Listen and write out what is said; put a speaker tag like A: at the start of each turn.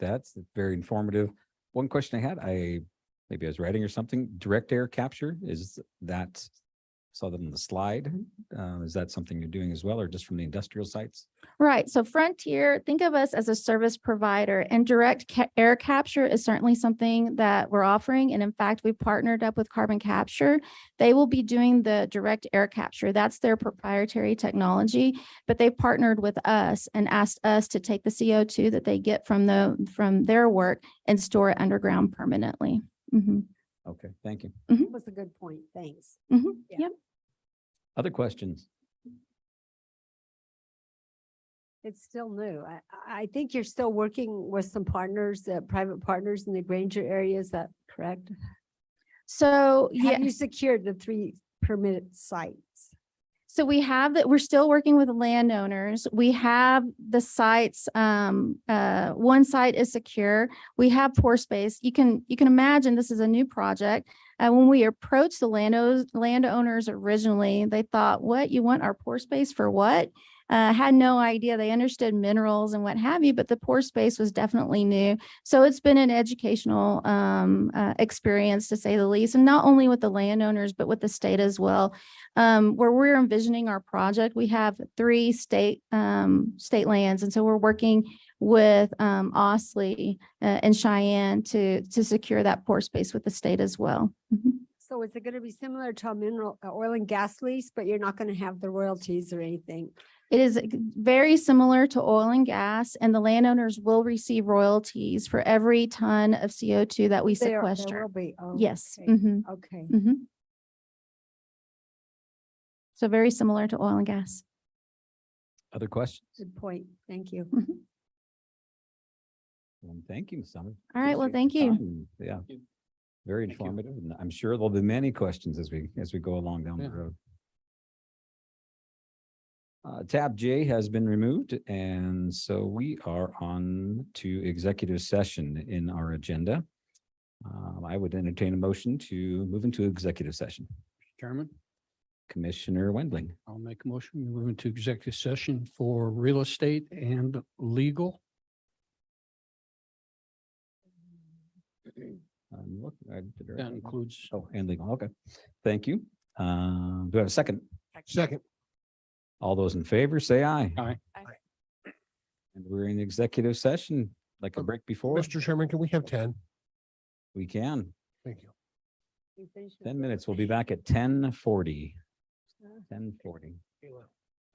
A: That's very informative. One question I had, I, maybe I was writing or something, direct air capture, is that, saw that on the slide. Uh, is that something you're doing as well, or just from the industrial sites?
B: Right. So Frontier, think of us as a service provider and direct ca- air capture is certainly something that we're offering. And in fact, we partnered up with Carbon Capture. They will be doing the direct air capture. That's their proprietary technology, but they partnered with us and asked us to take the CO2 that they get from the, from their work and store it underground permanently. Mhm.
A: Okay, thank you.
C: That was a good point. Thanks.
B: Mhm.
C: Yeah.
B: Yep.
A: Other questions?
C: It's still new. I, I think you're still working with some partners, uh, private partners in the Granger area. Is that correct?
B: So, yeah.
C: Have you secured the three permitted sites?
B: So we have that, we're still working with landowners. We have the sites, um, uh, one site is secure. We have poor space. You can, you can imagine this is a new project. Uh, when we approached the landowners, landowners originally, they thought, what, you want our poor space for what? Uh, had no idea. They understood minerals and what have you, but the poor space was definitely new. So it's been an educational, um, uh, experience to say the least, and not only with the landowners, but with the state as well um, where we're envisioning our project, we have three state, um, state lands. And so we're working with, um, Osley uh, and Cheyenne to, to secure that pore space with the state as well. Mhm.
C: So is it going to be similar to a mineral, a oil and gas lease, but you're not going to have the royalties or anything?
B: It is ex- very similar to oil and gas and the landowners will receive royalties for every ton of CO2 that we
C: There- there
B: sequester.
C: will be. Oh,
B: Yes.
C: okay.
B: mhm,
C: Okay.
B: mhm. So very similar to oil and gas.
A: Other questions?
C: Good point. Thank you.
B: Mhm.
A: Well, thank you, Ms. Summers.
B: All right. Well,
A: Appreciate
B: thank
A: your
B: you.
A: time. Yeah.
D: Thank you.
A: Very
D: Thank you.
A: informative, and I'm sure there'll be many questions as we, as we go along down the
D: Yeah.
A: road. Uh, tab J has been removed, and so we are on to executive session in our agenda. Um, I would entertain a motion to move into executive session.
D: Chairman,
A: Commissioner Wendling,
D: I'll make a motion. We move into executive session for real estate and legal.
A: um, look, I did it right.
D: That includes
A: Oh, and legal, okay. Thank you. Uh, do I have a second?
D: second.
A: All those in favor, say aye.
D: Aye.
C: Aye.
A: And we're in executive session, like a
E: Um,
A: break before,
E: Mr. Chairman, can we have ten?
A: we can.
E: Thank you.
C: You finished with
A: Ten
C: the-
A: minutes, we'll be back at ten forty. Ten forty.
E: Kayla.